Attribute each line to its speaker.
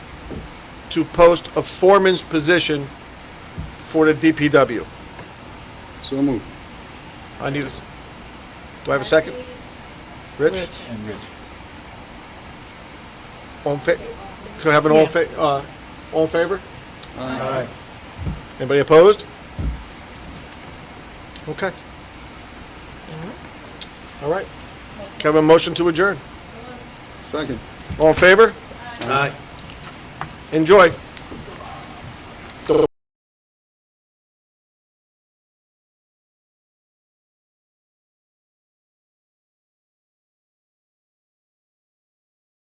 Speaker 1: to post a foreman's position for the DPW.
Speaker 2: So moved.
Speaker 1: I need a, s- do I have a second? Rich?
Speaker 3: And Rich.
Speaker 1: All in fa, could I have an all in fa, uh, all in favor?
Speaker 3: Aye.
Speaker 1: Anybody opposed? Okay. All right. Can I have a motion to adjourn?
Speaker 2: Second.
Speaker 1: All in favor?
Speaker 3: Aye.
Speaker 1: Enjoy.